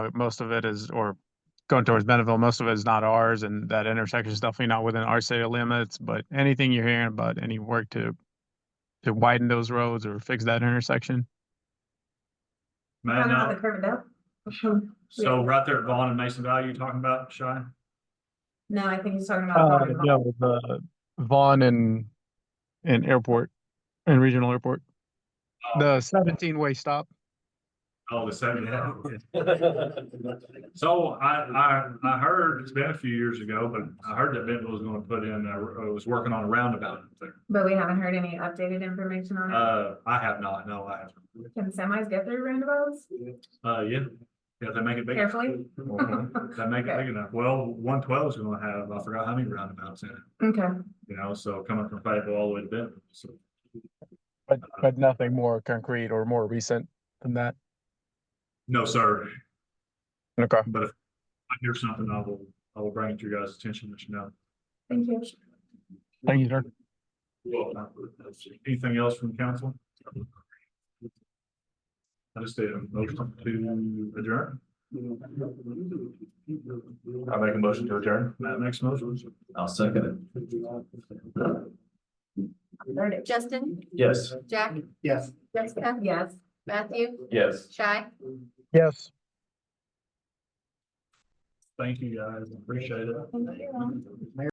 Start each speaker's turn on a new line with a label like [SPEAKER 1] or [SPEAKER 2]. [SPEAKER 1] but uh, most of it is, or going towards Bentonville, most of it is not ours, and that intersection is definitely not within our city limits, but anything you're hearing about, any work to to widen those roads or fix that intersection?
[SPEAKER 2] Matt,
[SPEAKER 3] Talking about
[SPEAKER 2] now,
[SPEAKER 3] the curb and dump?
[SPEAKER 2] so right there at Vaughn and Mason Valley, you're talking about, Shy?
[SPEAKER 3] No, I think he's talking about.
[SPEAKER 1] Uh, yeah, the Vaughn and, and airport, and regional airport. The seventeen-way stop.
[SPEAKER 2] Oh, the seven. So I, I, I heard, it's been a few years ago, but I heard that Bentonville was gonna put in, uh, was working on a roundabout there.
[SPEAKER 3] But we haven't heard any updated information on it.
[SPEAKER 2] Uh, I have not, no, I haven't.
[SPEAKER 3] Can semis get through roundabouts?
[SPEAKER 2] Uh, yeah, yeah, they make it big.
[SPEAKER 3] Carefully.
[SPEAKER 2] Mhm. They make it big enough. Well, one twelve is gonna have, I forgot how many roundabouts in it,
[SPEAKER 3] Okay,
[SPEAKER 2] you know, so coming from Fayetteville all the way to Bentonville, so.
[SPEAKER 1] But, but nothing more concrete or more recent than that.
[SPEAKER 2] No, sir,
[SPEAKER 1] Okay.
[SPEAKER 2] but if I hear something, I will, I will bring it to your guys' attention, let you know.
[SPEAKER 3] thank you.
[SPEAKER 1] Thank you, sir.
[SPEAKER 2] Anything else from council? I just did a motion to adjourn. I make a motion to adjourn. Matt makes a motion. I'll second it.
[SPEAKER 4] Justin,
[SPEAKER 2] Yes.
[SPEAKER 4] Jack,
[SPEAKER 2] Yes.
[SPEAKER 4] Jessica,
[SPEAKER 3] Yes.
[SPEAKER 4] Matthew,
[SPEAKER 2] Yes.
[SPEAKER 4] Shy.
[SPEAKER 1] Yes.
[SPEAKER 2] Thank you, guys. Appreciate it.
[SPEAKER 3] Thank you.